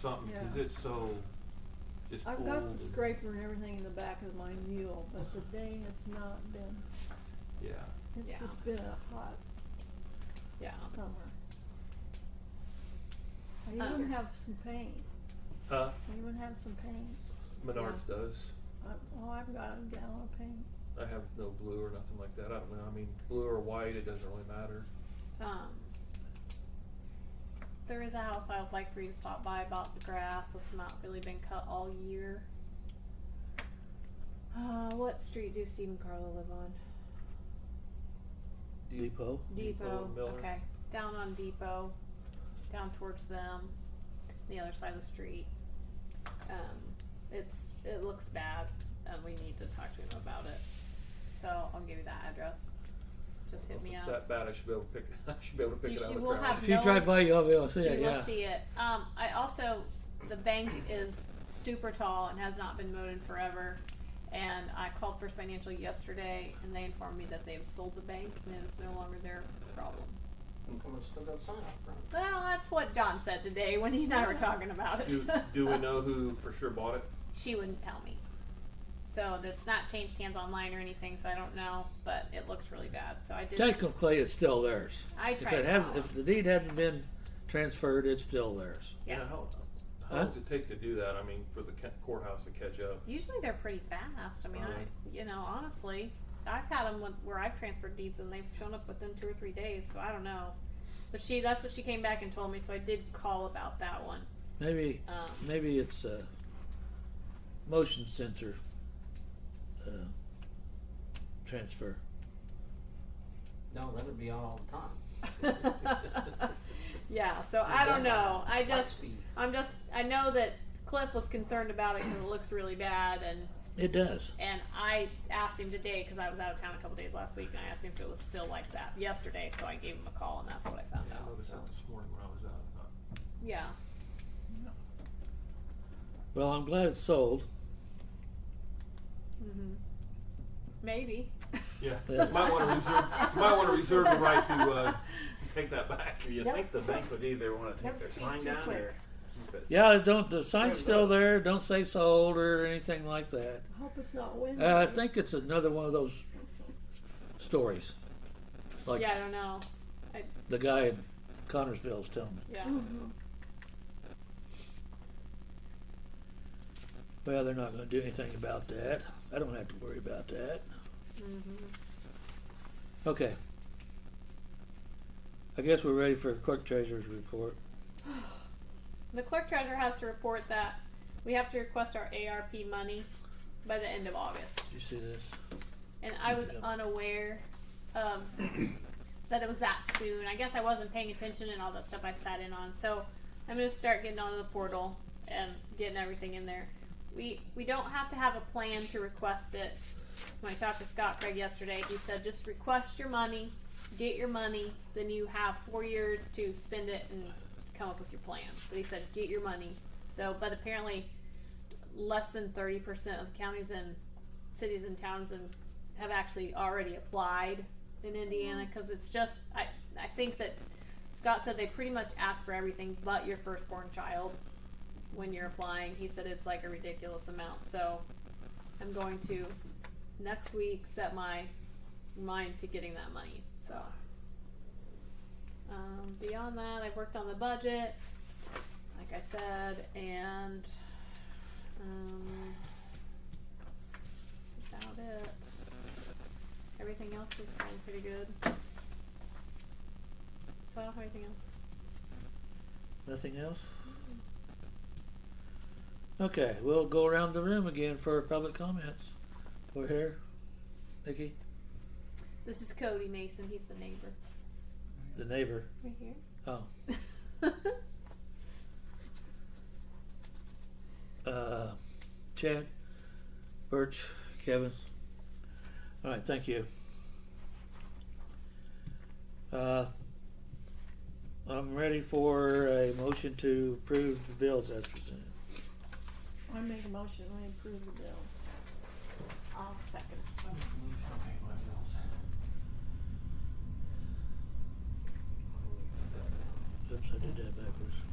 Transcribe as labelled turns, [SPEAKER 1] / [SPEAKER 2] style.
[SPEAKER 1] something, cause
[SPEAKER 2] Yeah.
[SPEAKER 1] it's so, just
[SPEAKER 2] I've
[SPEAKER 1] old.
[SPEAKER 2] got the
[SPEAKER 1] and-
[SPEAKER 2] scraper and everything in the back of my mule, but the day has not been,
[SPEAKER 1] Yeah,
[SPEAKER 2] it's
[SPEAKER 3] Yeah.
[SPEAKER 2] just been a hot
[SPEAKER 3] Yeah.
[SPEAKER 2] summer. I even
[SPEAKER 3] Um,
[SPEAKER 2] have some paint,
[SPEAKER 1] uh,
[SPEAKER 2] I even have some paint,
[SPEAKER 1] Menards does,
[SPEAKER 2] I, oh, I've got a gallon of paint,
[SPEAKER 1] I have no blue or nothing like that, I don't know, I mean, blue or white, it doesn't really matter.
[SPEAKER 3] Um, there is a house I would like for you to stop by about the grass that's not really been cut all year. Uh, what street do Steve and Carla live on?
[SPEAKER 1] Do you-
[SPEAKER 4] Depot.
[SPEAKER 1] Depot
[SPEAKER 3] Depot.
[SPEAKER 1] and Miller.
[SPEAKER 3] Okay. Down on Depot. Down towards them. The other side of the street. Um, it's it looks bad and we need to talk to him about it. So I'll give you that address. Just hit
[SPEAKER 1] If
[SPEAKER 3] me
[SPEAKER 1] it's
[SPEAKER 3] up.
[SPEAKER 1] that bad, I should be able to pick, I should be able to pick
[SPEAKER 3] You
[SPEAKER 1] it out
[SPEAKER 3] should-
[SPEAKER 1] of the
[SPEAKER 3] we'll
[SPEAKER 1] crowd.
[SPEAKER 3] have-
[SPEAKER 4] If you
[SPEAKER 3] No.
[SPEAKER 4] drive by, you'll be able to see
[SPEAKER 3] you
[SPEAKER 4] it.
[SPEAKER 3] will
[SPEAKER 4] yeah.
[SPEAKER 3] see it. Um, I also, the bank is super tall and has not been mowed in forever. And I called First Financial yesterday, and they informed me that they've sold the bank and it is no longer their problem.
[SPEAKER 5] Well, it's still got sign up front.
[SPEAKER 3] Well, that's what John said today when he and I were talking about it.
[SPEAKER 1] Do, do we know who for sure bought it?
[SPEAKER 3] she wouldn't tell me. So that's not changed hands online or anything, so I don't know. But it looks really bad. So I did.
[SPEAKER 4] Technically, it's still theirs.
[SPEAKER 3] I
[SPEAKER 4] If
[SPEAKER 3] tried.
[SPEAKER 4] it
[SPEAKER 3] to
[SPEAKER 4] has,
[SPEAKER 3] call
[SPEAKER 4] if
[SPEAKER 3] them.
[SPEAKER 4] the deed hadn't been transferred, it's still theirs.
[SPEAKER 1] You
[SPEAKER 3] yeah.
[SPEAKER 1] know, how, how
[SPEAKER 4] Huh?
[SPEAKER 1] long does it take to do that, I mean, for the ca- courthouse to catch up?
[SPEAKER 3] Usually they're pretty fast. I mean,
[SPEAKER 1] Right.
[SPEAKER 3] I, you know, honestly, I've had them where I've transferred deeds and they've shown up within two or three days. So I don't know. But she, that's what she came back and told me. So I did call about that one.
[SPEAKER 4] Maybe,
[SPEAKER 3] Um,
[SPEAKER 4] maybe it's a motion sensor uh, transfer.
[SPEAKER 5] No, that would be on all the time.
[SPEAKER 3] yeah. So I don't know. I
[SPEAKER 5] Light
[SPEAKER 3] just,
[SPEAKER 5] speed.
[SPEAKER 3] I'm just, I know that Cliff was concerned about it because it looks really bad and.
[SPEAKER 4] It does.
[SPEAKER 3] And I asked him today because I was out of town a couple days last week, and I asked him if it was still like that yesterday. So I gave him a call, and that's what I found
[SPEAKER 1] I
[SPEAKER 3] out.
[SPEAKER 1] noticed
[SPEAKER 3] So
[SPEAKER 1] that this morning when I was out, I thought,
[SPEAKER 3] yeah,
[SPEAKER 4] Well, I'm glad it's sold.
[SPEAKER 3] mm-hmm. maybe.
[SPEAKER 1] Yeah,
[SPEAKER 4] Yeah.
[SPEAKER 1] might want to reserve, might want to reserve the right to uh, take that back.
[SPEAKER 6] Do you
[SPEAKER 2] Yep.
[SPEAKER 6] think the bank would either want to take
[SPEAKER 2] Don't
[SPEAKER 6] their
[SPEAKER 2] speak
[SPEAKER 6] sign
[SPEAKER 2] too
[SPEAKER 6] down
[SPEAKER 2] quick.
[SPEAKER 6] or keep it?
[SPEAKER 4] Yeah, don't, the sign's
[SPEAKER 6] Sure,
[SPEAKER 4] still
[SPEAKER 6] but-
[SPEAKER 4] there. Don't say sold or anything like that.
[SPEAKER 2] I hope it's not windy.
[SPEAKER 4] Uh, I think it's another one of those stories. Like
[SPEAKER 3] yeah, I don't know.
[SPEAKER 4] the guy in Connorsville's telling me.
[SPEAKER 3] Yeah,
[SPEAKER 2] Mhm.
[SPEAKER 4] Well, they're not going to do anything about that. I don't have to worry about that.
[SPEAKER 3] Mm-hmm.
[SPEAKER 4] Okay. I guess we're ready for clerk treasurer's report.
[SPEAKER 3] the clerk treasurer has to report that we have to request our ARP money by the end of August.
[SPEAKER 4] Did you see this?
[SPEAKER 3] and I was
[SPEAKER 4] Yeah.
[SPEAKER 3] unaware um, that it was that soon. I guess I wasn't paying attention and all that stuff I sat in on. So I'm gonna start getting onto the portal and getting everything in there. We we don't have to have a plan to request it. When I talked to Scott Craig yesterday, he said just request your money, get your money, then you have four years to spend it and come up with your plan. But he said get your money. So, but apparently, less than thirty percent of counties and cities and towns and have actually already applied in Indiana because it's just I I think that Scott said they pretty much ask for everything but your firstborn child when you're applying. He said it's like a ridiculous amount. So I'm going to next week set my mind to getting that money. So um, beyond that, I've worked on the budget, like I said, and um, that's about it. Everything else is going pretty good. So I don't have anything else.
[SPEAKER 4] Nothing else? Okay, we'll go around the room again for public comments. We're here. Nikki,
[SPEAKER 3] This is Cody Mason. He's the neighbor.
[SPEAKER 4] the neighbor.
[SPEAKER 3] Right here.
[SPEAKER 4] Oh,
[SPEAKER 3] I
[SPEAKER 4] uh, Chad, Birch, Kevin. All right, thank you. Uh, I'm ready for a motion to approve the bills as presented.
[SPEAKER 2] I make a motion, I approve the bill. I'll second.
[SPEAKER 4] Oops, I did that backwards.